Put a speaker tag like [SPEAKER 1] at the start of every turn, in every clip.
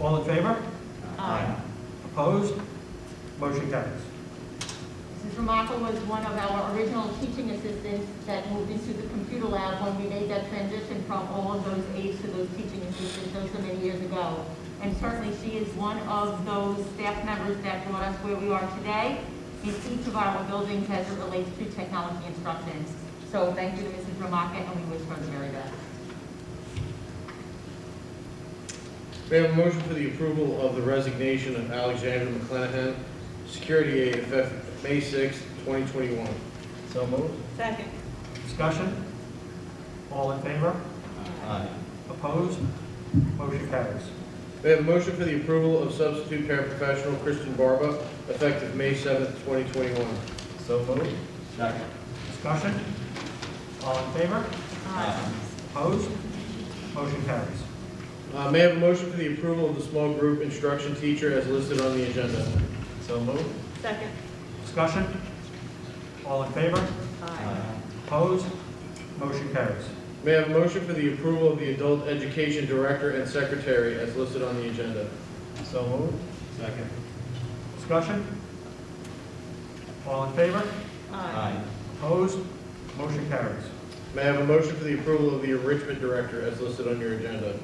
[SPEAKER 1] All in favor?
[SPEAKER 2] Aye.
[SPEAKER 1] Opposed? Motion carries.
[SPEAKER 3] Mrs. Remarkable was one of our original teaching assistants that moved into the computer lab when we made that transition from all of those aides to those teaching assistants so, so many years ago. And certainly, she is one of those staff members that brought us where we are today in each of our buildings as it relates to technology instruction. So thank you to Mrs. Remarkable, and we wish her the very best.
[SPEAKER 4] May I have a motion for the approval of the resignation of Alexander McClanahan, security aide effective May 6, 2021?
[SPEAKER 5] So moved.
[SPEAKER 2] Second.
[SPEAKER 1] Discussion? All in favor?
[SPEAKER 5] Aye.
[SPEAKER 1] Opposed? Motion carries.
[SPEAKER 4] May I have a motion for the approval of substitute paraprofessional Kristen Barba effective May 7, 2021?
[SPEAKER 5] So moved. Second.
[SPEAKER 1] Discussion? All in favor? Opposed? Motion carries.
[SPEAKER 4] Uh, May I have a motion for the approval of the small group instruction teacher as listed on the agenda?
[SPEAKER 5] So moved.
[SPEAKER 2] Second.
[SPEAKER 1] Discussion? All in favor? Opposed? Motion carries.
[SPEAKER 4] May I have a motion for the approval of the adult education director and secretary as listed on the agenda?
[SPEAKER 5] So moved. Second.
[SPEAKER 1] Discussion? All in favor? Opposed? Motion carries.
[SPEAKER 4] May I have a motion for the approval of the enrichment director as listed on your agenda?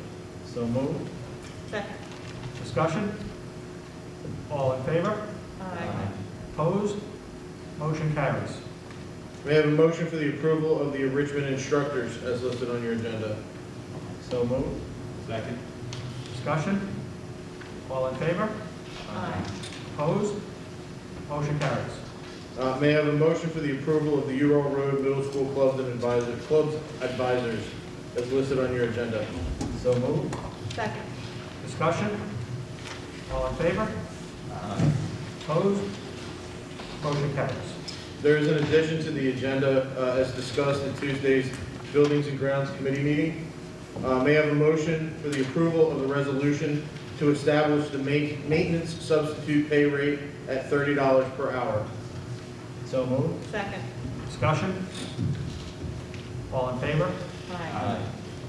[SPEAKER 5] So moved.
[SPEAKER 2] Second.
[SPEAKER 1] Discussion? All in favor? Opposed? Motion carries.
[SPEAKER 4] May I have a motion for the approval of the enrichment instructors as listed on your agenda?
[SPEAKER 5] So moved. Second.
[SPEAKER 1] Discussion? All in favor? Opposed? Motion carries.
[SPEAKER 4] Uh, May I have a motion for the approval of the Ural Road Middle School Clubs and Advisors, Clubs Advisors as listed on your agenda?
[SPEAKER 5] So moved.
[SPEAKER 2] Second.
[SPEAKER 1] Discussion? All in favor? Opposed? Motion carries.
[SPEAKER 4] There is an addition to the agenda uh, as discussed in Tuesday's Buildings and Grounds Committee meeting. Uh, May I have a motion for the approval of the resolution to establish the ma- maintenance substitute pay rate at $30 per hour?
[SPEAKER 5] So moved.
[SPEAKER 2] Second.
[SPEAKER 1] Discussion? All in favor?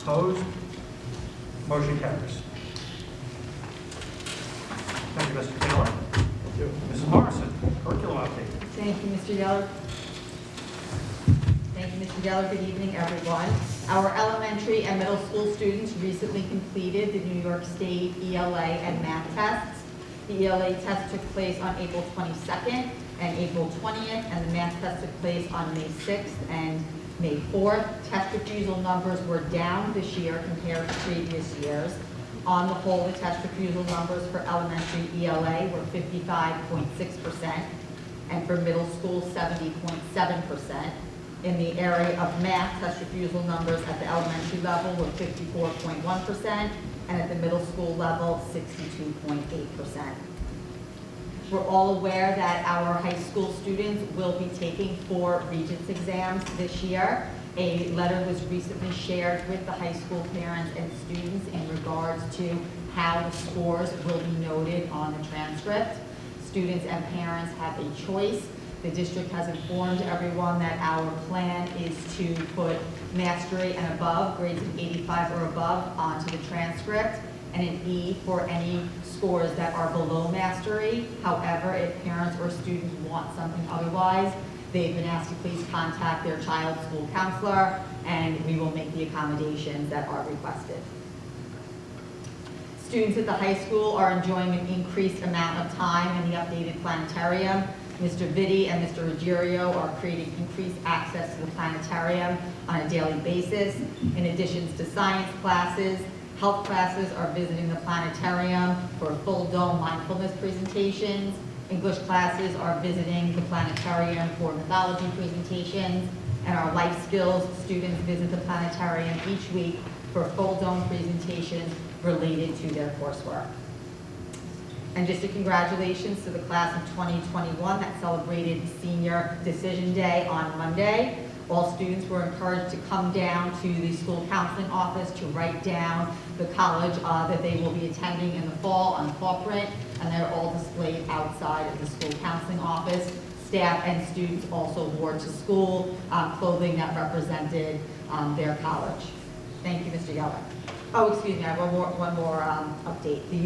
[SPEAKER 1] Opposed? Motion carries. Thank you, Mr. Taylor. Mrs. Morrison, curriculum update.
[SPEAKER 6] Thank you, Mr. Geller. Thank you, Mr. Geller. Good evening, everyone. Our elementary and middle school students recently completed the New York State ELA and math tests. The ELA test took place on April 22nd and April 20th, and the math test took place on May 6th and May 4th. Test refusal numbers were down this year compared to previous years. On the whole, the test refusal numbers for elementary ELA were 55.6%, and for middle school, 70.7%. In the area of math, test refusal numbers at the elementary level were 54.1%, and at the middle school level, 62.8%. We're all aware that our high school students will be taking four Regents exams this year. A letter was recently shared with the high school parents and students in regards to how the scores will be noted on the transcript. Students and parents have a choice. The district has informed everyone that our plan is to put mastery and above, grades of 85 or above, onto the transcript, and an E for any scores that are below mastery. However, if parents or students want something otherwise, they've been asked to please contact their child's school counselor, and we will make the accommodations that are requested. Students at the high school are enjoying an increased amount of time in the updated planetarium. Mr. Vitti and Mr. Ruggiero are creating increased access to the planetarium on a daily basis. In addition to science classes, health classes are visiting the planetarium for full dome mindfulness presentations. English classes are visiting the planetarium for mythology presentations. And our life skills students visit the planetarium each week for full dome presentations related to their coursework. And just a congratulations to the class of 2021 that celebrated Senior Decision Day on Monday. All students were encouraged to come down to the school counseling office to write down the college uh, that they will be attending in the fall on fall print, and they're all displayed outside of the school counseling office. Staff and students also wore to school uh, clothing that represented um, their college. Thank you, Mr. Yeller. Oh, excuse me, I have one more, one more um, update. The